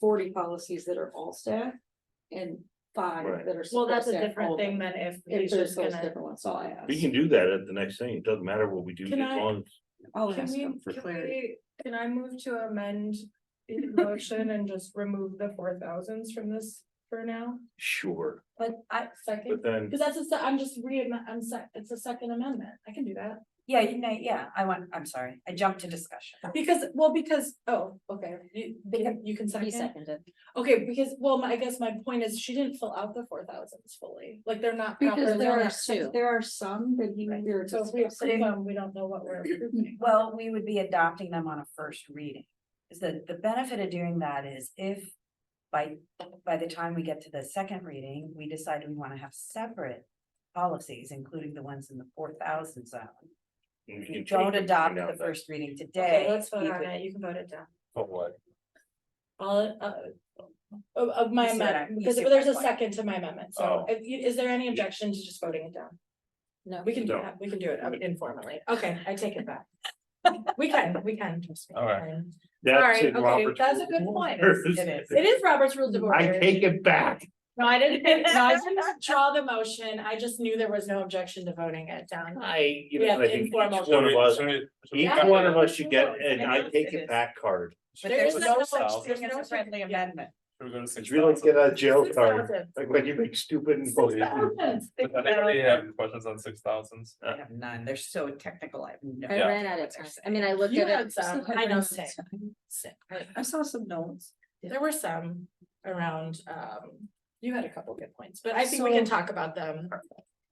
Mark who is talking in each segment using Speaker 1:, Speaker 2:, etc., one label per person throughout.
Speaker 1: forty policies that are all staff and five
Speaker 2: Right.
Speaker 1: that are.
Speaker 3: Well, that's a
Speaker 1: staff
Speaker 3: different
Speaker 1: only.
Speaker 3: thing than if
Speaker 1: If
Speaker 3: he's
Speaker 1: there's
Speaker 3: just
Speaker 1: those
Speaker 3: gonna.
Speaker 1: different ones, so I asked.
Speaker 2: We can do that at the next thing. It doesn't matter what we do.
Speaker 3: Can
Speaker 2: as
Speaker 3: I-
Speaker 2: long as-
Speaker 4: Oh,
Speaker 1: I'll
Speaker 3: Can
Speaker 1: ask them for
Speaker 3: we, can
Speaker 1: clarity.
Speaker 3: we, can I move to amend the motion and just remove the four thousands from this for now?
Speaker 2: Sure,
Speaker 3: But I
Speaker 2: but
Speaker 3: second,
Speaker 2: then,
Speaker 3: because that's a, se- I'm just re, I'm sec, it's a second amendment, I can do that.
Speaker 4: Yeah, you know, yeah, I want, I'm sorry, I jumped to discussion.
Speaker 3: Because, well, because, oh, okay, you,
Speaker 4: Because
Speaker 3: you can second.
Speaker 4: He seconded.
Speaker 3: Okay, because, well, my- I guess my point is she didn't fill out the four thousands fully, like they're not.
Speaker 1: Because
Speaker 3: properly-
Speaker 1: there
Speaker 4: only
Speaker 1: are,
Speaker 4: two.
Speaker 1: there are some that he, there
Speaker 3: So if we approve them, we don't know what we're approving.
Speaker 4: Well, we would be adopting them on a first reading. Is that the benefit of doing that is if by, by the time we get to the second reading, we decide we want to have separate policies, including the ones in the four thousand zone.
Speaker 2: we
Speaker 4: If
Speaker 2: can
Speaker 4: you
Speaker 2: change
Speaker 4: don't
Speaker 2: everything
Speaker 4: adopt
Speaker 2: down
Speaker 4: the
Speaker 2: to
Speaker 4: first reading today.
Speaker 3: Okay, let's vote
Speaker 4: we
Speaker 3: on
Speaker 4: would-
Speaker 3: it, you can vote it down.
Speaker 2: Of Oh, what?
Speaker 3: All, uh, of, of my
Speaker 4: You see what I-
Speaker 3: amendment,
Speaker 4: you
Speaker 3: because
Speaker 4: see what
Speaker 3: there's
Speaker 4: I
Speaker 3: a
Speaker 4: like.
Speaker 3: second to my amendment, so
Speaker 2: Oh.
Speaker 3: if you- is there any objection to just voting it down?
Speaker 1: No.
Speaker 3: We can do
Speaker 2: No.
Speaker 3: that, we can do it um, informally, okay, I take it back. We can, we can, trust me.
Speaker 2: All right.
Speaker 3: Um,
Speaker 2: That's
Speaker 3: Sorry,
Speaker 2: in
Speaker 3: okay,
Speaker 2: Robert's
Speaker 3: that's a good
Speaker 2: rules.
Speaker 3: point.
Speaker 4: It
Speaker 3: It is Robert's Rules of Order.
Speaker 2: I take it back.
Speaker 3: No, I didn't, no, I didn't draw the motion, I just knew there was no objection to voting it down.
Speaker 2: I, you
Speaker 3: We
Speaker 2: know,
Speaker 3: have
Speaker 2: I think each one
Speaker 3: informal-
Speaker 2: of us, each
Speaker 3: Yeah.
Speaker 2: one of us should get
Speaker 3: Yeah.
Speaker 2: an I take
Speaker 4: It
Speaker 2: it
Speaker 4: is.
Speaker 2: back card.
Speaker 4: But
Speaker 3: There
Speaker 4: there's
Speaker 3: is
Speaker 4: no
Speaker 3: no
Speaker 4: such
Speaker 3: such-
Speaker 4: thing as
Speaker 3: there's no
Speaker 4: a
Speaker 3: such-
Speaker 4: friendly amendment.
Speaker 2: It's really like get a jail
Speaker 3: Six
Speaker 2: card,
Speaker 3: thousand.
Speaker 2: like when you make stupid and
Speaker 3: Six thousand.
Speaker 5: Does anybody have questions on six thousands?
Speaker 4: I have none. They're so technical. I have no.
Speaker 5: Yeah.
Speaker 6: ran out of time. I mean, I looked
Speaker 3: You
Speaker 6: at
Speaker 3: had
Speaker 6: it.
Speaker 3: some,
Speaker 1: I
Speaker 3: I know,
Speaker 1: ran
Speaker 3: six. Six.
Speaker 1: I saw some notes.
Speaker 3: There were some around, um, you had a couple good points, but I think we can
Speaker 1: So-
Speaker 3: talk about them.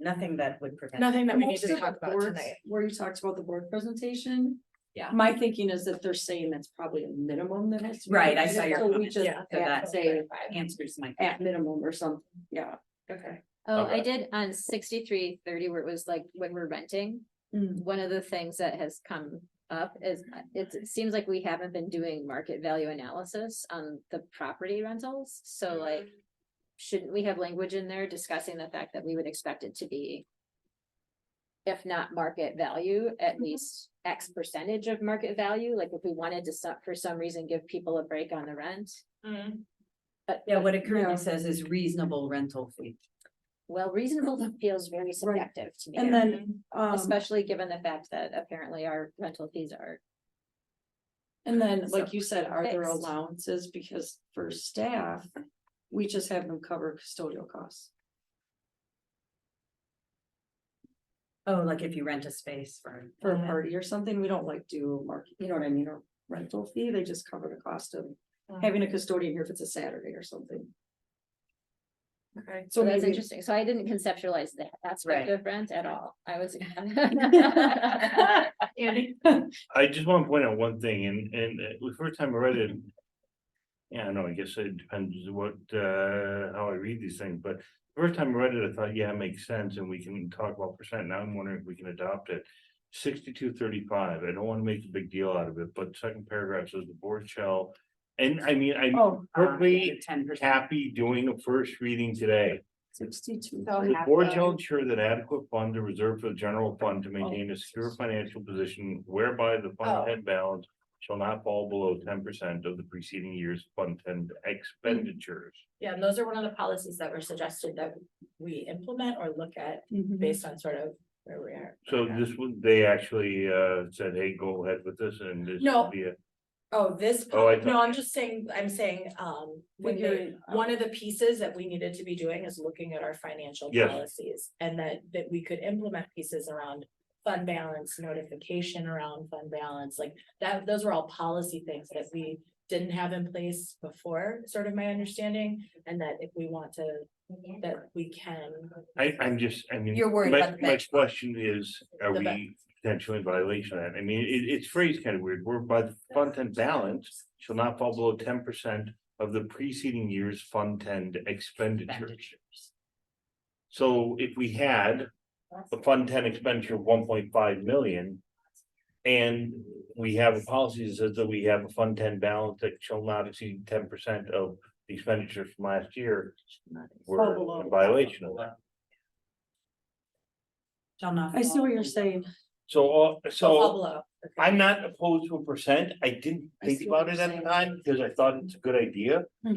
Speaker 4: Nothing that would prevent.
Speaker 3: Nothing that we need
Speaker 1: Most
Speaker 3: to
Speaker 1: of the
Speaker 3: talk about
Speaker 1: boards
Speaker 3: tonight.
Speaker 1: Where you talked about the board presentation.
Speaker 3: Yeah.
Speaker 1: My thinking is that they're saying that's probably a minimum that has. to be
Speaker 4: Right, I
Speaker 1: included,
Speaker 4: saw your
Speaker 1: So we
Speaker 4: comment.
Speaker 1: just
Speaker 3: Yeah.
Speaker 4: So
Speaker 1: add,
Speaker 4: that-
Speaker 1: say
Speaker 4: Answers my.
Speaker 1: at minimum or something, yeah.
Speaker 3: Okay.
Speaker 6: Oh, I
Speaker 5: Okay.
Speaker 6: did on sixty-three thirty where it was like when we're renting.
Speaker 1: Mm.
Speaker 6: One of the things that has come up is uh, it's- it seems like we haven't been doing market value analysis on the property rentals. So
Speaker 1: Mm.
Speaker 6: like, shouldn't we have language in there discussing the fact that we would expect it to be if not market value, at
Speaker 1: Mm-hmm.
Speaker 6: least X percentage of market value? Like if we wanted to, so- for some reason, give people a break on the rent.
Speaker 3: Mm-hmm.
Speaker 4: Yeah, what it
Speaker 1: Yeah.
Speaker 4: currently says is reasonable rental fee.
Speaker 6: Well, reasonable feels very subjective to me.
Speaker 1: And then, um,
Speaker 6: Especially given the fact that apparently our rental fees are,
Speaker 1: and then, like you said, are there
Speaker 6: Fixed.
Speaker 1: allowances, because for staff, we just have them cover custodial costs.
Speaker 4: Oh, like if you rent a space for.
Speaker 1: For a party or something, we don't like do a market, you know what I mean, or rental fee, they just cover the cost of having a custodian here if it's a Saturday or something.
Speaker 3: Okay.
Speaker 1: So
Speaker 6: so that's
Speaker 1: maybe-
Speaker 6: interesting. So I didn't conceptualize that
Speaker 4: Right.
Speaker 6: aspect of rent at all. I was.
Speaker 1: Mm-hmm.
Speaker 3: Andy?
Speaker 2: I just want to point out one thing, and, and uh, the first time I read it. Yeah, I know, I guess it depends what, uh, how I read these things, but the first time I read it, I thought, yeah, it makes sense, and we can talk about percent, now I'm wondering if we can adopt it. Sixty-two thirty-five, I don't want to make a big deal out of it, but second paragraph says the board shall, and I mean, I'm
Speaker 4: Oh.
Speaker 2: perfectly
Speaker 4: Ten percent.
Speaker 2: happy doing a first reading today.
Speaker 1: Sixty-two.
Speaker 3: So
Speaker 2: The
Speaker 3: have
Speaker 2: board
Speaker 3: them-
Speaker 2: shall ensure that adequate funds are reserved for the general fund to maintain a secure financial position whereby the
Speaker 3: Oh.
Speaker 2: fund head balance. Shall not fall below ten percent of the preceding year's fund ten expenditures.
Speaker 3: Yeah, and those are one of the policies that were suggested that we implement or look at
Speaker 1: Mm-hmm.
Speaker 3: based on sort of where we are.
Speaker 2: So
Speaker 3: Okay.
Speaker 2: this would, they actually uh said, hey, go ahead with this and this.
Speaker 3: No.
Speaker 2: will be it."
Speaker 3: Oh, this,
Speaker 2: Oh, I
Speaker 3: poli- no, I'm just saying, I'm saying, um, when they,
Speaker 1: Figuring out.
Speaker 3: one of the pieces that we needed to be doing is looking at our financial
Speaker 2: Yes.
Speaker 3: policies. And that, that we could implement pieces around fund balance, notification around fund balance, like that, those were all policy things that we didn't have in place before, sort of my understanding, and that if we want to, that we can.
Speaker 2: I I'm just, I mean.
Speaker 4: You're worried
Speaker 2: my-
Speaker 4: about the
Speaker 2: My
Speaker 4: bank.
Speaker 2: question is, are
Speaker 3: The
Speaker 2: we potentially in violation of that? I mean, it it's phrased kind of weird, whereby the fund ten balance. shall not fall below ten percent of the preceding year's fund ten expenditures.
Speaker 4: expenditures.
Speaker 2: So if we had a fund ten expenditure of one point five million. And we have a policy that says that we have a fund ten balance that shall not exceed ten percent of the expenditure from last year.
Speaker 1: Fall
Speaker 2: We're
Speaker 1: below.
Speaker 2: in violation of that.
Speaker 4: Shall not.
Speaker 1: I see what
Speaker 4: fall
Speaker 1: you're
Speaker 4: below.
Speaker 1: saying,
Speaker 2: So, all- so
Speaker 3: Pablo,
Speaker 2: I'm not opposed to a percent. I didn't
Speaker 1: I
Speaker 2: think
Speaker 1: see what
Speaker 2: about
Speaker 1: you're
Speaker 2: it at the
Speaker 1: saying.
Speaker 2: time because I thought it's a good idea.